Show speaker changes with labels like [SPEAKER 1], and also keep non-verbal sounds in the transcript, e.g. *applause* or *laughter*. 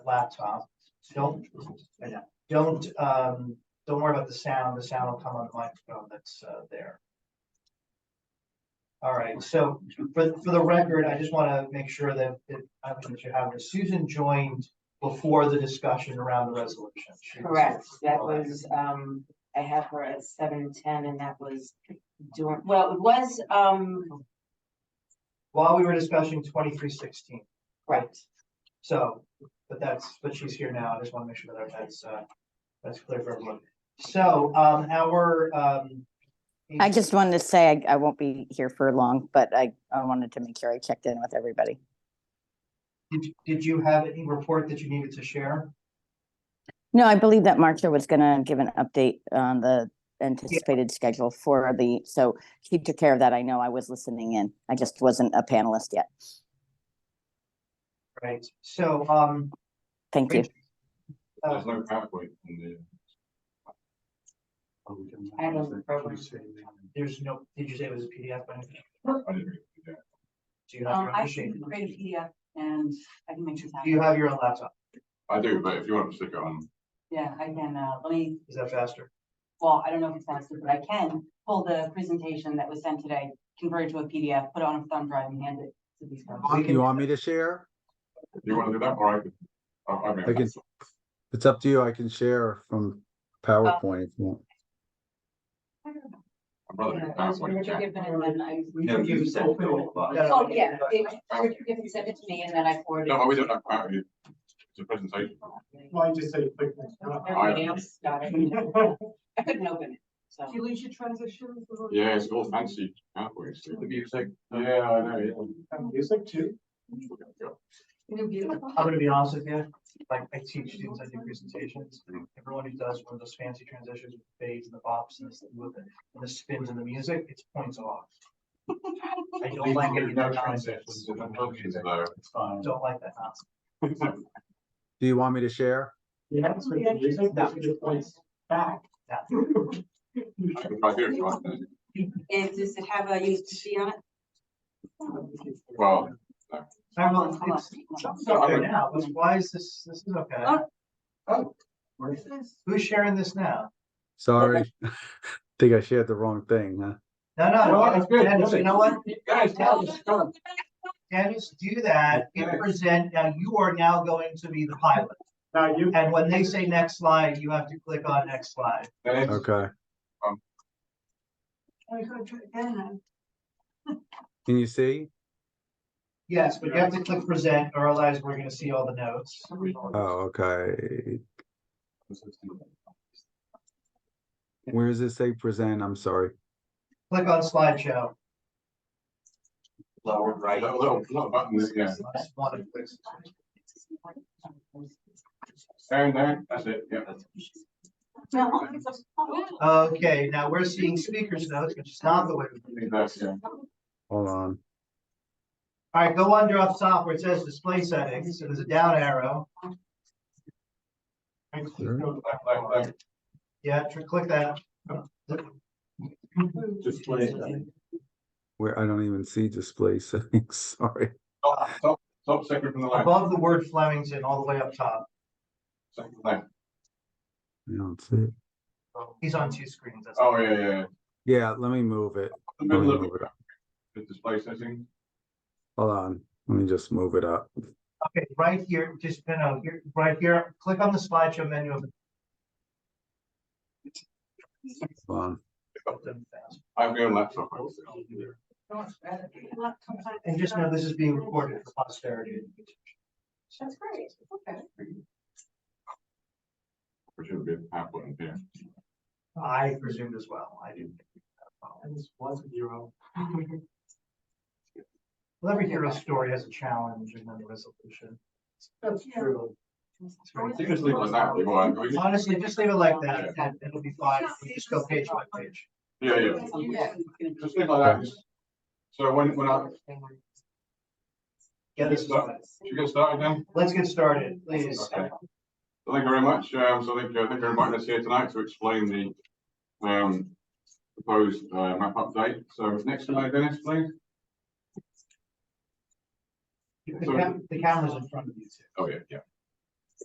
[SPEAKER 1] laptop. Don't, don't, um, don't worry about the sound. The sound will come on the microphone that's, uh, there. All right, so for, for the record, I just want to make sure that, that, I don't know if you have, Susan joined before the discussion around the resolution. She was-
[SPEAKER 2] Correct, that
[SPEAKER 1] All right.
[SPEAKER 2] was, um, I have her at seven ten and that was doing, well, it was, um,
[SPEAKER 1] While we were discussing twenty-three sixteen.
[SPEAKER 2] right.
[SPEAKER 1] So, but that's, but she's here now, I just wanna make sure that that's, uh, that's clear for everyone. So, um, our, um.
[SPEAKER 3] I just wanted to say I, I won't be here for long, but I, I wanted to make sure I checked in with everybody.
[SPEAKER 1] Did, did you have any report that you needed to share?
[SPEAKER 3] No, I believe that Marcia was gonna give an update on the anticipated schedule for the, so she took care of that. I know I was listening in. I just wasn't a panelist yet.
[SPEAKER 1] Right, so, um,
[SPEAKER 3] Thank you.
[SPEAKER 1] uh,
[SPEAKER 4] There's no PowerPoint in there.
[SPEAKER 2] I don't remember.
[SPEAKER 1] there's no, did you say it was a PDF? by any chance?
[SPEAKER 4] I didn't read that.
[SPEAKER 1] Do you have
[SPEAKER 5] Um,
[SPEAKER 1] your own
[SPEAKER 5] I
[SPEAKER 1] machine?
[SPEAKER 5] can create a PDF and I can make sure.
[SPEAKER 1] Do you have your own laptop?
[SPEAKER 4] I do, but if you want to stick it on,
[SPEAKER 5] Yeah, I can, uh, let me,
[SPEAKER 1] Is that faster?
[SPEAKER 5] well, I don't know if it's faster, but I can pull the presentation that was sent today, convert it to a PDF, put it on a thumb drive and hand it to these folks.
[SPEAKER 1] We
[SPEAKER 6] Do
[SPEAKER 1] can-
[SPEAKER 6] you want me to share?
[SPEAKER 4] you want to do that, or I could. I- I mean,
[SPEAKER 6] I can- It's up to you. I can share from PowerPoint if you want.
[SPEAKER 4] I'd rather do PowerPoint. chat.
[SPEAKER 1] You can use that. No, no,
[SPEAKER 5] Oh,
[SPEAKER 1] no.
[SPEAKER 5] yeah,
[SPEAKER 2] can send it to me and then I forward
[SPEAKER 4] No, but we don't have PowerPoint. It's a presentation.
[SPEAKER 7] Mine just say quick.
[SPEAKER 4] Everybody
[SPEAKER 2] else got *laughs* I couldn't open it, so.
[SPEAKER 7] you lose your transition?
[SPEAKER 4] Yeah, it's all fancy. PowerPoints. The music. Yeah, I know. yeah.
[SPEAKER 7] Music too?
[SPEAKER 1] I'm gonna be honest with you, like, I teach students, I do presentations, everyone who does one of those fancy transitions with fades and the bops and this, with it, and the spins and the music, it's points off. I don't like any
[SPEAKER 4] There's
[SPEAKER 1] of
[SPEAKER 4] no
[SPEAKER 1] that nonsense,
[SPEAKER 4] transitions, there's no transitions, though.
[SPEAKER 7] It's fine.
[SPEAKER 1] don't like that nonsense.
[SPEAKER 6] Do you want me to share?
[SPEAKER 7] You have to switch the music, that should points back.
[SPEAKER 4] I can try here if you want.
[SPEAKER 5] Is, does it have a USB on it?
[SPEAKER 4] Well,
[SPEAKER 1] I
[SPEAKER 5] Hold
[SPEAKER 1] will,
[SPEAKER 5] on, hold on.
[SPEAKER 1] it's, it's okay now, What's- why is this, this is okay, who's sharing this now?
[SPEAKER 6] Sorry. *laughs* Think I shared the wrong thing, huh?
[SPEAKER 1] No,
[SPEAKER 4] Well,
[SPEAKER 1] no,
[SPEAKER 4] that's good,
[SPEAKER 1] Dennis, you know what,
[SPEAKER 4] guys, now it's done.
[SPEAKER 1] Dennis, do that, you
[SPEAKER 4] Okay.
[SPEAKER 1] present, now you are now going to be the pilot,
[SPEAKER 7] Now you.
[SPEAKER 1] and when they say next slide, you have to click on next slide.
[SPEAKER 4] Then it's-
[SPEAKER 6] Okay.
[SPEAKER 5] I'm gonna try again.
[SPEAKER 6] Can you see?
[SPEAKER 1] Yes, but you have to click present, or otherwise we're gonna see all the notes.
[SPEAKER 6] Oh, okay. Where does it say present? I'm sorry.
[SPEAKER 1] Click on slideshow.
[SPEAKER 8] lower right.
[SPEAKER 4] Little, little, little button, yeah.
[SPEAKER 1] Just one of those.
[SPEAKER 4] Down there, that's it, yeah.
[SPEAKER 5] No, it's a-
[SPEAKER 1] Okay, now we're seeing speakers notes, which is not the way. we do it.
[SPEAKER 4] That's, yeah.
[SPEAKER 6] Hold on.
[SPEAKER 1] All right, go under up top where it says display settings, so there's a down arrow.
[SPEAKER 4] Like, like, like,
[SPEAKER 1] Yeah, tr- click that.
[SPEAKER 7] Display.
[SPEAKER 6] Where I don't even see display *laughs* settings. Sorry.
[SPEAKER 4] Top, top, top second from the left.
[SPEAKER 1] Above the word Flemington, all the way up top.
[SPEAKER 4] Second from left.
[SPEAKER 6] I don't see it.
[SPEAKER 1] He's on two screens. that's all.
[SPEAKER 4] Oh, yeah, yeah, yeah.
[SPEAKER 6] Yeah, let me move it.
[SPEAKER 4] The
[SPEAKER 6] Let me
[SPEAKER 4] middle of
[SPEAKER 6] move it up.
[SPEAKER 4] the display setting.
[SPEAKER 6] Hold on. Let me just move it up.
[SPEAKER 1] Okay, right here, just, no, no, here, right here, click on the slideshow menu of the.
[SPEAKER 6] Hold on.
[SPEAKER 4] I've got a laptop.
[SPEAKER 1] And just know this is being recorded for posterity.
[SPEAKER 5] That's great, okay.
[SPEAKER 4] Which would be a PowerPoint, yeah.
[SPEAKER 1] I presumed as well, I didn't.
[SPEAKER 7] And this was zero.
[SPEAKER 1] Well, every hero story has a challenge and then a resolution.
[SPEAKER 7] That's true.
[SPEAKER 4] You just leave it like that, if you want. We just-
[SPEAKER 1] Honestly, just leave it like that, and it'll be fine, We just go page by page.
[SPEAKER 4] Yeah, yeah. Just leave it like that. just- So when, when I,
[SPEAKER 1] Get us started.
[SPEAKER 4] should we get started then?
[SPEAKER 1] Let's get started, please.
[SPEAKER 4] Okay. So Thank you very much. Um, so thank you, thank you for inviting us here tonight to explain the, um, proposed, uh, map update. So next slide, Dennis, please.
[SPEAKER 1] The cam- the camera's in front of you. too.
[SPEAKER 4] Oh, yeah, yeah.